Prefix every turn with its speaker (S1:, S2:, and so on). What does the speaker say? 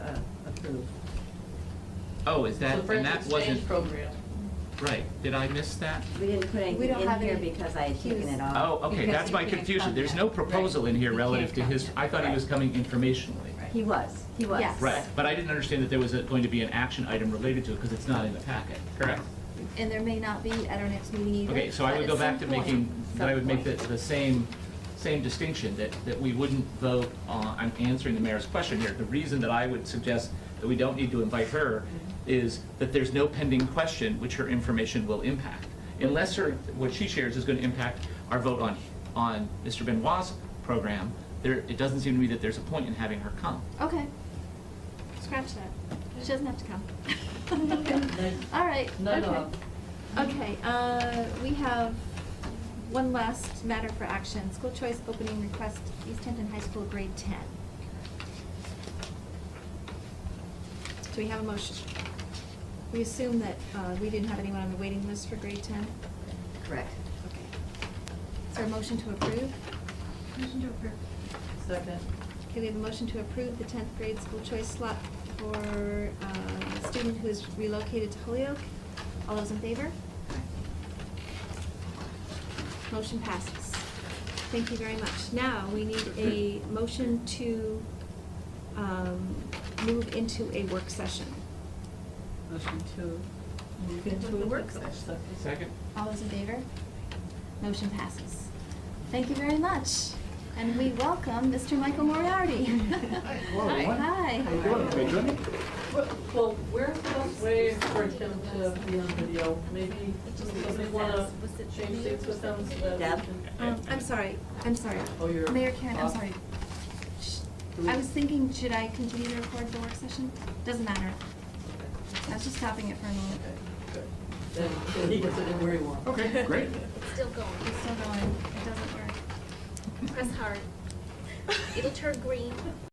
S1: approved.
S2: Oh, is that,
S1: So for
S2: and that
S1: the exchange
S2: wasn't,
S1: program.
S2: right, did I miss that?
S3: We didn't put
S4: We
S3: anything
S4: don't
S3: in
S4: have
S3: here
S4: any-
S3: because I had
S4: he
S3: taken
S4: was-
S3: it off.
S2: Oh, okay,
S4: Uh, Because
S2: that's
S4: you
S2: my
S4: can't
S2: confusion,
S4: fund
S2: there's
S4: that.
S2: no proposal in here
S4: Right. You
S2: relative to
S4: can't
S2: his,
S4: fund
S2: I thought he
S3: Right.
S2: was coming informationally.
S3: He was, he was.
S4: Yes.
S2: Oh. Right, but I didn't understand that there was a- going to be an action item related to it, because it's not in the packet, correct?
S4: And there may not be at our next meeting either.
S2: Okay, so I
S4: but
S2: would
S4: at
S2: go back to
S4: some point-
S2: making, that I would make the,
S3: some
S2: the same, same distinction, that, that we wouldn't vote on, I'm answering the mayor's question here. The reason that I would suggest that we don't need to invite her is that there's no pending question which her information will impact. Unless her, what she shares is gonna impact our vote on, on Mr. Benoit's program, there, it doesn't seem to me that there's a point in having her come.
S4: Okay. Scratch that. She doesn't have to come. All right.
S1: None
S4: okay.
S1: of.
S4: Okay, uh, we have one last matter for action. School choice opening request, East Hampton High School, grade ten. Do we have a motion? We assume that, uh, we didn't have anyone on the waiting list for grade ten?
S3: Correct.
S4: Okay. Is there a motion to approve? Motion to approve.
S1: Second.
S4: Okay, we have a motion to approve the tenth grade school choice slot for uh, a student who is relocated to Holyoke. All those in favor? Motion passes. Thank you very much. Now, we need a motion to um, move into a work session.
S1: Motion to move
S4: With
S1: into
S4: the
S1: a work
S4: work
S1: session.
S2: Second?
S4: All those in favor? Motion passes. Thank you very much. And we welcome Mr. Michael Moriarty.
S5: Hello, everyone.
S4: Hi.
S5: How you doing? Are you doing?
S1: Well, we're supposed to wait for him to be on video. Maybe somebody wanna change seats with him so that we
S3: Deb?
S1: can-
S4: Um, I'm sorry, I'm sorry.
S1: Oh, you're.
S4: Mayor Karen, I'm
S1: off.
S4: sorry. Sh- I was thinking, should I continue to record the work session? Doesn't matter. I was just stopping it for a moment.
S1: Then then he can sit in where he wants.
S5: Okay, great.
S6: Still going.
S4: It's still going, it doesn't work.
S6: Press hard. It'll turn green.